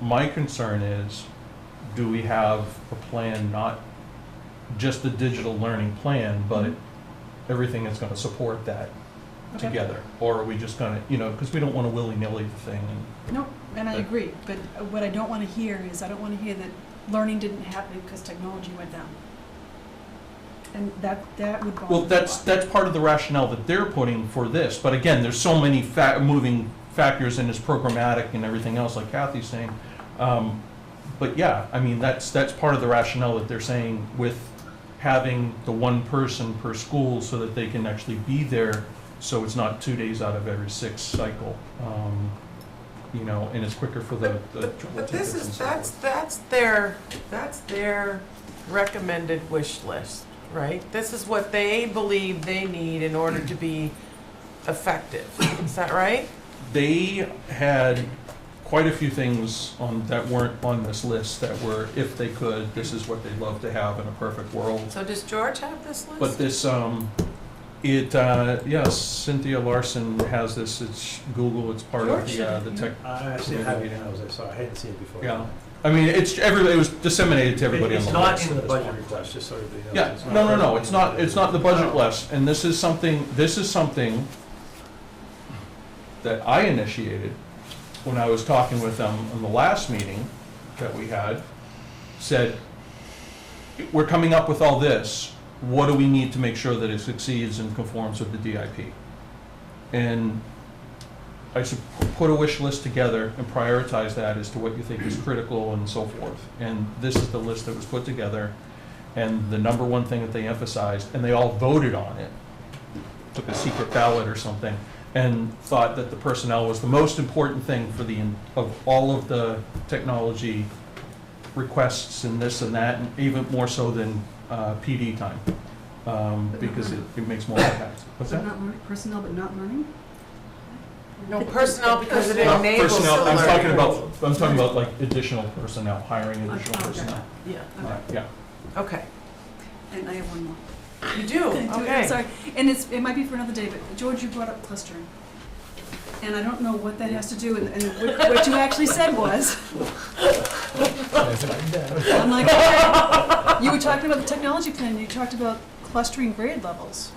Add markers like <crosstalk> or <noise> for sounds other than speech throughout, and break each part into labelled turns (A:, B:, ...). A: My concern is, do we have a plan, not just the digital learning plan, but everything that's gonna support that
B: Okay.
A: together? Or are we just gonna, you know, because we don't wanna willy-nilly the thing and
B: No, and I
A: Okay.
B: agree, but what I don't want to hear is, I don't want to hear that learning didn't happen because technology went down. And that, that would bother me.
A: Well, that's,
B: a lot.
A: that's part of the rationale that they're putting for this, but again, there's so many fa- moving factors and it's programmatic and everything else, like Kathy's saying. Um, But yeah, I mean, that's, that's part of the rationale that they're saying with having the one person per school so that they can actually be there, so it's not two days out of every six cycle. Um, You know, and it's quicker for the,
C: But-
A: the
C: But
A: triple
C: but this
A: takers and
C: is,
A: so
C: that's,
A: forth.
C: that's their, that's their recommended wish list, right? This is what they believe they need in order to be effective. Is that right?
A: They had quite a few things on, that weren't on this list that were, if they could, this is what they'd love to have in a perfect world.
C: So does George have this list?
A: But this, um, it, uh, yes, Cynthia Larson has this, it's Google, it's part of the, uh, the tech.
D: I actually have it now, as I saw, I hadn't seen it before.
A: Yeah. I mean, it's, everybody, it was disseminated to everybody on
D: It's
A: the
D: not
A: list.
D: in the budget request, just so everybody knows.
A: Yeah,
D: It's
A: no, no,
D: not- Oh.
A: no, it's not, it's not the budget less, and this is something, this is something that I initiated when I was talking with them in the last meeting that we had, said, we're coming up with all this, what do we need to make sure that it succeeds and conforms with the DIP? And I should pu- put a wish list together and prioritize that as to what you think is critical and so forth. And this is the list that was put together, and the number one thing that they emphasized, and they all voted on it, took a secret ballot or something, and thought that the personnel was the most important thing for the, of all of the technology requests and this and that, and even more so than uh, PD time, um, because it it makes more impact. What's
E: So
A: that?
E: not learning, personnel, but not learning?
C: No, personnel because it
A: Not
C: enables the
A: personnel, I'm talking
C: learning.
A: about, I'm talking about like additional personnel, hiring additional
E: Oh, okay.
A: personnel.
C: Yeah,
A: Uh, Yeah,
C: okay.
B: And I have one more.
C: You do,
B: I'm
C: Oh, okay.
B: Sorry, and it's, it might be for another day, but George, you brought up clustering. And I don't know what that has to do, and, and what what you actually said was. I'm like, okay. you were talking about the technology plan, you talked about clustering grade levels.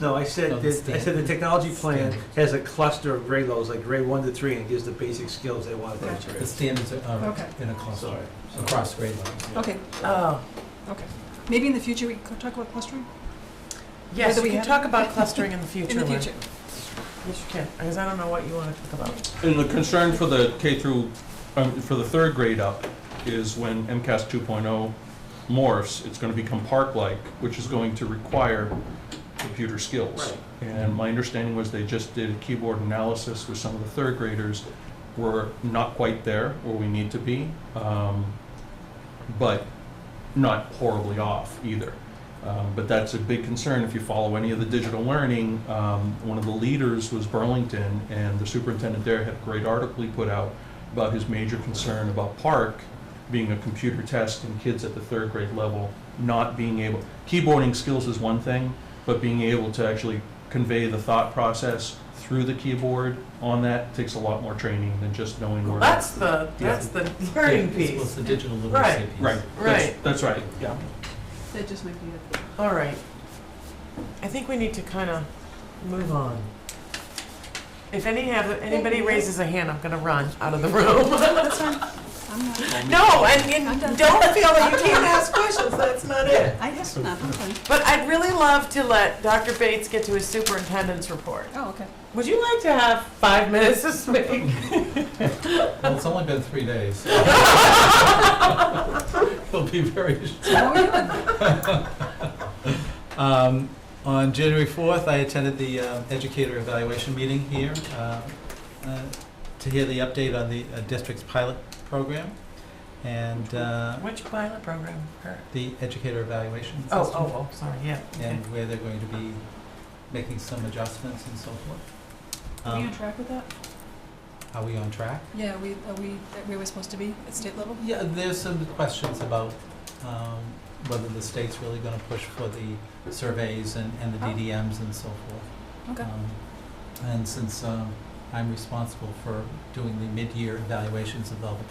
D: No, I said, that- I said the technology plan has a cluster of grade levels, like grade one to three, and gives the basic skills they want to
F: The
D: teach.
F: standards are
B: Okay.
F: in a cluster,
D: Sorry.
F: across grade levels.
B: Okay,
C: Oh,
B: okay. Maybe in the future, we could talk about clustering?
C: yes,
B: Whether we
C: we can
B: have-
C: talk about clustering
B: <laughs>
C: in the future.
B: In the
C: Lynn.
B: future.
C: Yes, you can, because I don't know what you want to talk about.
A: <laughs> and the concern for the K through, um, for the third grade up is when MCAS 2.0 morphs, it's gonna become park-like, which is going to require computer skills. And my understanding was they just did a keyboard analysis with some of the third graders. We're not quite there where we need to be, um, but not horribly off either. Um, but that's a big concern if you follow any of the digital learning. Um, one of the leaders was Burlington, and the superintendent there had a great article he put out about his major concern about Park being a computer test and kids at the third grade level not being able. Keyboarding skills is one thing, but being able to actually convey the thought process through the keyboard on that takes a lot more training than just knowing where.
C: That's the, that's the learning
F: It's- It's
C: piece.
F: the digital literacy
C: Right.
F: piece.
A: Right. that's-
C: Right.
A: That's right, yeah.
E: That just might be it.
C: All right. I think we need to kind of move on. If any have, anybody raises a hand, I'm going to run out of the room. <laughs>
B: That's fine. I'm not,
C: No, and,
B: I'm
C: and
B: done.
C: don't feel that you
B: <laughs>
C: can't ask questions, that's not it.
B: I guess not, I'm fine.
C: But I'd really love to let Dr. Bates get to his superintendent's report.
B: Oh, okay.
C: Would you like to have five minutes to speak?
F: Well, it's only been three days. <laughs> It'll be very
B: So what were you doing?
F: Um, On January 4th, I attended the uh, educator evaluation meeting here uh, uh, to hear the update on the uh, district's pilot program and uh,
C: Which pilot program? Her-
F: the educator evaluation system.
C: Oh, oh, oh, sorry, yeah. okay.
F: And where they're going to be making some adjustments and so forth.
B: Are we
F: Um,
B: on track with that?
F: Are we on track?
B: Yeah, we, are we, that we were supposed to be at state level?
F: Yeah, there's some questions about um, whether the state's really going to push for the surveys and and the
B: Oh.
F: DDMs and so forth.
B: Okay.
F: Um, And since um, I'm responsible for doing the mid-year evaluations of all the